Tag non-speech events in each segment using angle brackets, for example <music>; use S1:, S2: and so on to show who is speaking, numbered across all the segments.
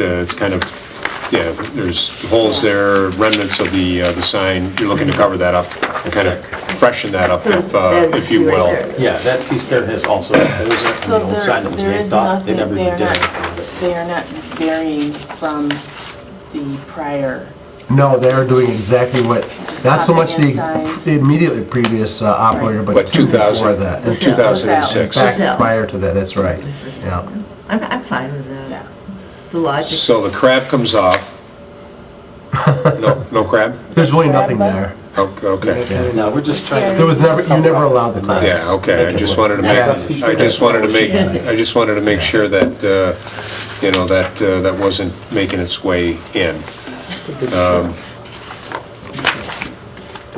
S1: Uh, It's kind of, yeah, there's holes there, remnants of the, uh, the sign. You're looking to cover that up and kind of freshen that up, if, uh, if you will.
S2: Yeah, that piece there has also, there was a-
S3: So
S2: an old
S3: there,
S2: sign that was
S3: there is
S2: yanked off, they
S3: nothing,
S2: never
S3: they are
S2: even did
S3: not,
S2: anything with it.
S3: they are not varying from the prior.
S4: No, they're doing exactly what, not so much the
S3: Just popping in signs.
S4: the immediately previous uh, operator, but
S1: But
S4: two before
S1: 2000,
S4: that.
S1: in
S4: In
S1: 2006.
S4: fact, prior to that, that's right, yeah.
S5: I'm, I'm fine with
S3: Yeah.
S5: that. It's the logic.
S1: So the crab comes
S4: <laughs>
S1: off. No, no crab?
S4: There's really nothing there.
S1: O- Okay.
S4: Yeah.
S2: No, we're just trying
S4: There
S2: to,
S4: was never, you never allowed the crowd.
S1: Yeah, okay, I just wanted to make, I just wanted to make, I just wanted to make sure that, uh, you know, that, uh, that wasn't making its way in.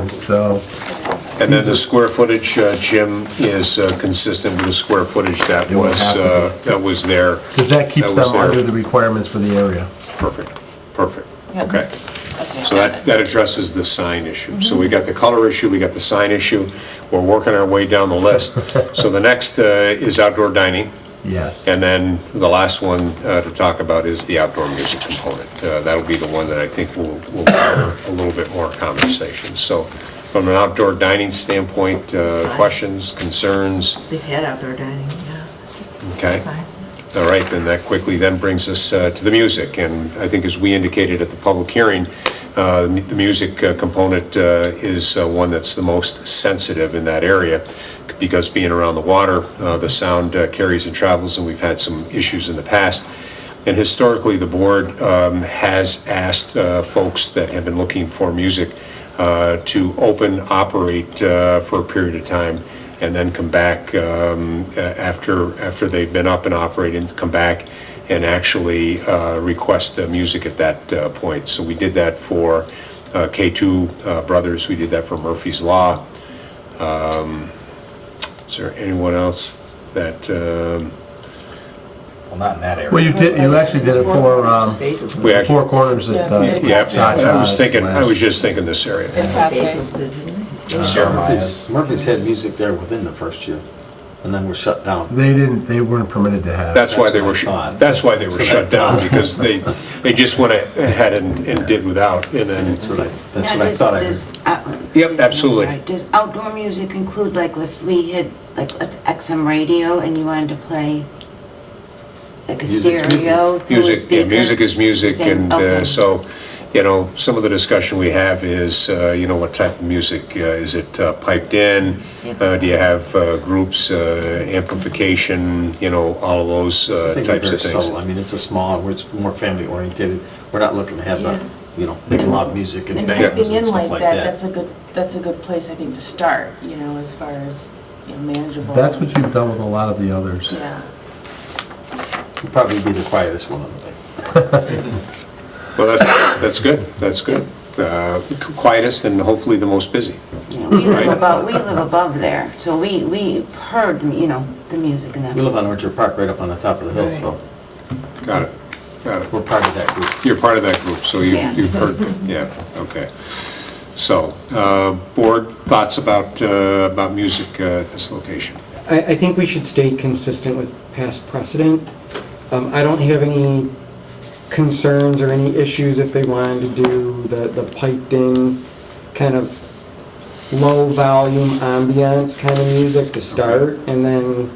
S4: So,
S1: And then the square footage, uh, Jim, is uh, consistent with the square footage that
S4: It would
S1: was,
S4: have to
S1: uh, that was there.
S4: because that keeps
S1: That was
S4: them under
S1: there.
S4: the requirements for the area.
S1: Perfect, perfect,
S3: Yeah.
S1: okay.
S3: Okay. Mhm.
S1: So that, that addresses the sign issue. So we got the color issue, we got the sign issue, we're working our way down the list. So the next uh, is outdoor dining,
S4: Yes.
S1: and then the last one uh, to talk about is the outdoor music component. Uh, That'll be the one that I think will, will cover a little bit more conversation. So from an outdoor dining standpoint,
S5: It's
S1: uh,
S5: fine.
S1: questions, concerns,
S5: They've had outdoor dining, yeah, it's
S1: okay?
S5: fine.
S1: All right, then that quickly then brings us uh, to the music, and I think as we indicated at the public hearing, uh, the music uh, component uh, is uh, one that's the most sensitive in that area, because being around the water, uh, the sound uh, carries and travels, and we've had some issues in the past. And historically, the board um, has asked uh, folks that have been looking for music uh, to open, operate uh, for a period of time, and then come back um, a- after, after they've been up and operating, come back and actually uh, request uh, music at that uh, point. So we did that for uh, K2 uh, Brothers, we did that for Murphy's Law. Um, Is there anyone else that, um,
S6: Well, not in that area.
S4: Well, you did, you actually did it for, um,
S5: Basil's.
S1: we actually...
S4: Four Corners at. uh,
S3: Yeah,
S1: Yeah, I was
S4: Cha-Cha's
S1: thinking, I
S4: last-
S1: was just thinking this area.
S3: They're probably-
S5: Basil's did, didn't
S2: Murphy's, Murphy's had music there within the first year, and then was shut down.
S4: They didn't, they weren't permitted to have.
S1: That's why they were,
S2: That's what I
S1: shut-
S2: thought.
S1: that's why they were
S2: That's what I
S1: shut down,
S2: thought.
S1: because they, they just went ahead and, and did without, and
S2: That's
S1: then,
S2: what I, that's
S7: Now,
S2: what I
S7: does-
S2: thought I heard.
S7: does out-
S1: Yep,
S7: I'm
S1: absolutely.
S7: sorry. Does outdoor music include, like, if we had, like, let's XM radio and you wanted to play, like, a
S2: Music's
S7: stereo through a
S1: music, yeah,
S7: speaker?
S1: music is music,
S7: Same,
S1: and uh,
S7: okay.
S1: so, you know, some of the discussion we have is, uh, you know, what type of music, uh, is it uh, piped in? Uh, Do you have uh, groups, uh, amplification, you know, all of those
S2: I
S1: uh,
S2: think we're
S1: types
S2: very
S1: of things?
S2: subtle. I mean, it's a small, we're it's more family oriented, we're not looking to have the, you know, big loud music and
S3: And
S2: bangers
S3: piping in
S2: and stuff
S3: like
S2: like
S3: that, that's
S2: that.
S3: a good, that's a good place, I think, to start, you know, as far as you know, manageable.
S4: That's what you've done with a lot of the others.
S3: Yeah.
S2: It'd Probably be the quietest one on the day.
S1: Well, that's, that's good, that's good. Uh, Quietest and hopefully the most busy.
S7: Yeah, <laughs> We live
S1: Right.
S7: above, we live above there, so we, we heard, you know, the music and that.
S2: We live on Orchard Park, right up on the top of the hill, so
S1: Got it, got it.
S2: we're part of that group.
S1: You're part of that group, so you,
S7: Yeah.
S1: you've heard, yeah, okay. So, uh, board thoughts about, uh, about music uh, at this location?
S8: I, I think we should stay consistent with past precedent. Um, I don't have any concerns or any issues if they wanted to do the, the piped-in kind of low-volume ambiance kind of music to start, and then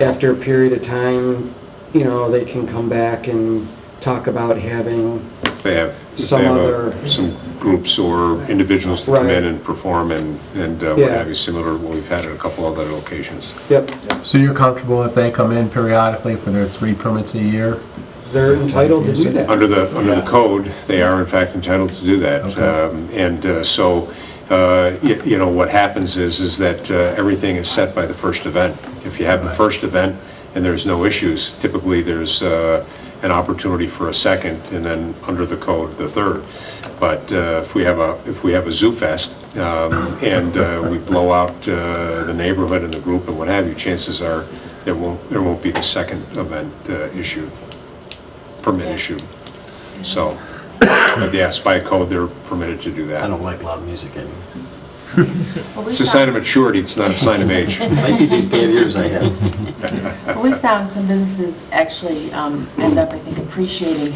S8: after a period of time, you know, they can come back and talk about having,
S1: They have, if
S8: Some
S1: they have
S8: other-
S1: a- some groups or individuals to come in
S8: Right.
S1: and perform and, and uh, what
S8: Yeah.
S1: have you, similar to what we've had at a couple other locations.
S8: yep,
S4: So you're comfortable if they come in periodically for their three permits a year?
S8: they're entitled to do that.
S1: Under the, under the code, they are in fact entitled to do that.
S4: Okay.
S1: Um, And uh, so, uh, y- you know, what happens is, is that uh, everything is set by the first event. If you have the first event and there's no issues, typically there's uh, an opportunity for a second, and then under the code, the third. But uh, if we have a, if we have a Zoo Fest, um, and uh, we blow out uh, the neighborhood and the group and what have you, chances are, there won't, there won't be the second event uh, issued, permit issued. So, <coughs> but yes, by code, they're permitted to do
S2: I
S1: that.
S2: don't like loud music anyways.
S3: Well, we
S1: It's a
S3: found-
S1: sign of maturity, it's not a sign of age.
S2: Might be these bad ears I have.
S3: well, We found some businesses actually um, end up, I think, appreciating